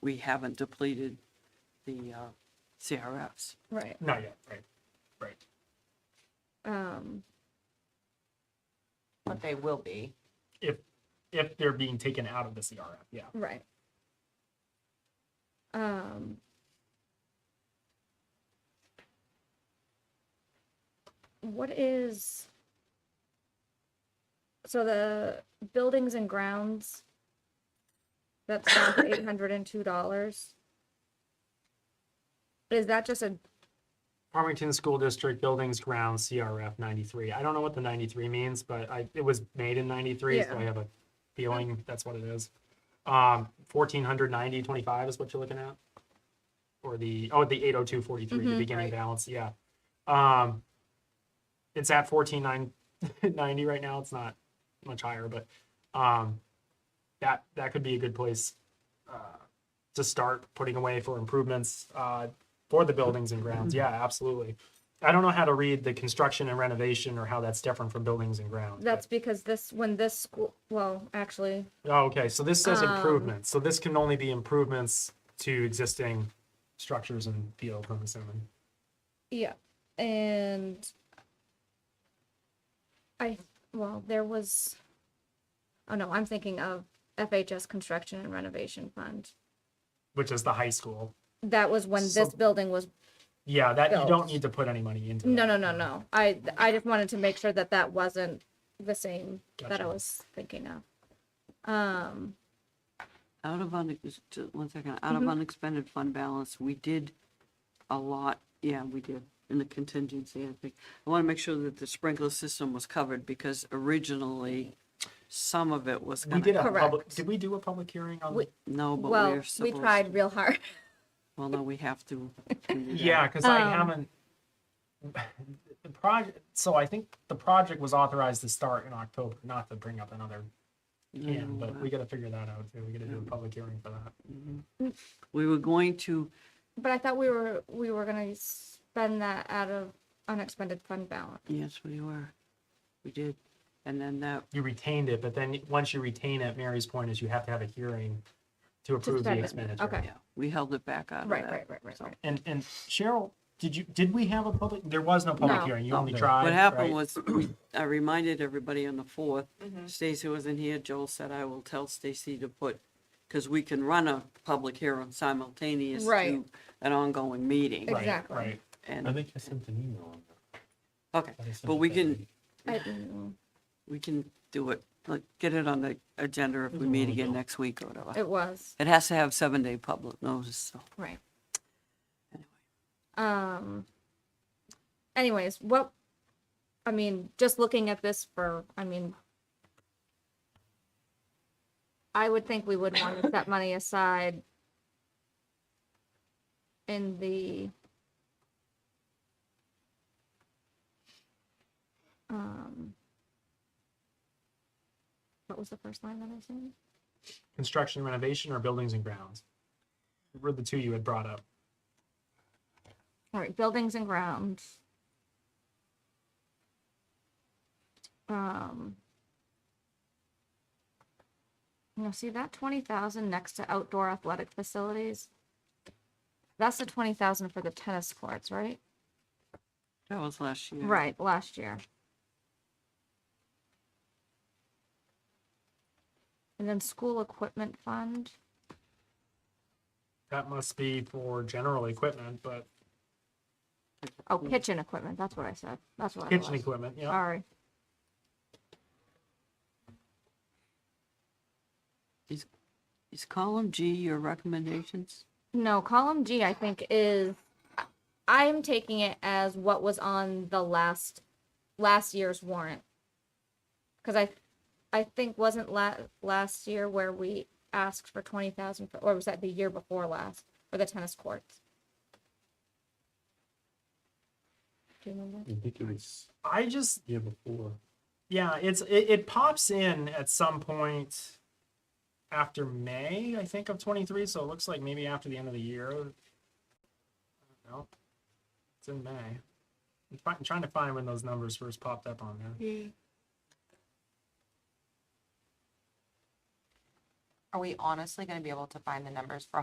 we haven't depleted the uh, CRFs. Right. Not yet, right, right. Um, But they will be. If, if they're being taken out of the CRF, yeah. right. Um, what is so the buildings and grounds that's down to eight hundred and two dollars. Is that just a Farmington School District Buildings Grounds CRF ninety-three. I don't know what the ninety-three means, but I, it was made in ninety-three, so Yeah. I have a feeling that's what it is. Um, fourteen hundred ninety twenty-five is what you're looking at? Or the, oh, the eight oh two forty-three, the Mhm, beginning right. balance, yeah. Um, it's at fourteen nine ninety right now. It's not much higher, but, um, that, that could be a good place, uh, to start putting away for improvements, uh, for the buildings and grounds. Mm-hmm. Yeah, absolutely. I don't know how to read the construction and renovation or how that's different from buildings and grounds. but- that's because this when this school well actually Oh, okay, so this says Um, improvements, so this can only be improvements to existing structures and field, I'm assuming. Yeah, and I, well, there was, oh no, I'm thinking of FHS Construction and Renovation Fund. Which is the high school. That was when this Some- building was, Yeah, that, you don't Built. need to put any money into. no, no, no, that. no. I, I just wanted to make sure that that wasn't the same that I Gotcha. was thinking of. Um, Out of, un- just one second, out of Mhm. unexpended fund balance, we did a lot, yeah, we did, in the contingency, I think. I want to make sure that the sprinkler system was covered because originally, some of it was We going did a to, public, Correct. did we do a public hearing on? We- no, but well, we're we supposed. tried real hard. Well, no, we have to. do that. Yeah, because I Um, haven't. The project, so I think the project was authorized to start in October, not to bring up another can, uh, but Mm. we gotta figure that out too. We gotta do a public hearing for that. We were going to, But I thought we were, we were gonna spend that out of unexpended fund balance. yes, we were, we did. And then that, you retained it, but then once you retain it, Mary's point is you have to have a hearing to approve the spend it. expenditure. Okay. yeah, we held it back out of Right, that. right, right, right, So- right. And, and Cheryl, did you, did we have a public, there was no public No. hearing, you No. only tried. What happened right? was, we- I reminded everybody on the fourth, Mm-hmm. Stacy wasn't here, Joel said, I will tell Stacy to put, because we can run a public hearing simultaneous to Right. an ongoing meeting. Ex- Right, Exactly. Right, I And, think I sent an email on that. okay, I sent but it we that can, week. I don't know. we can do it, like, get it on the agenda if we a meet while again ago. next week or whatever. It was, It has to have seven-day public notice, so. right. Anyway. Um, anyways, what, I mean, just looking at this for, I mean, I would think we would want to set money aside in the um, what was the first line that I said? construction renovation or buildings and grounds? Were the two you had brought up. All right, buildings and grounds. Um. You know, see that twenty thousand next to outdoor athletic facilities? That's the twenty thousand for the tennis courts, right? That was last year. Right, last year. And then school equipment fund, That must be for general equipment, but oh, kitchen equipment, that's what I said, that's what I kitchen was. equipment, yeah. Sorry, Is column G your recommendations? No, column G, I think, is, I- I'm taking it as what was on the last, last year's warrant. Cause I, I think wasn't la- last year where we asked for twenty thousand, or was that the year before last, for the tennis courts? Do you remember? I think it was I just, year before. Yeah, it's it, it pops in at some point after May, I think, of twenty three. So it looks like maybe after the end of the year. I don't know. It's in May. I'm, fi- I'm trying to find when those numbers first popped up on there. Are we honestly gonna be able to find the numbers for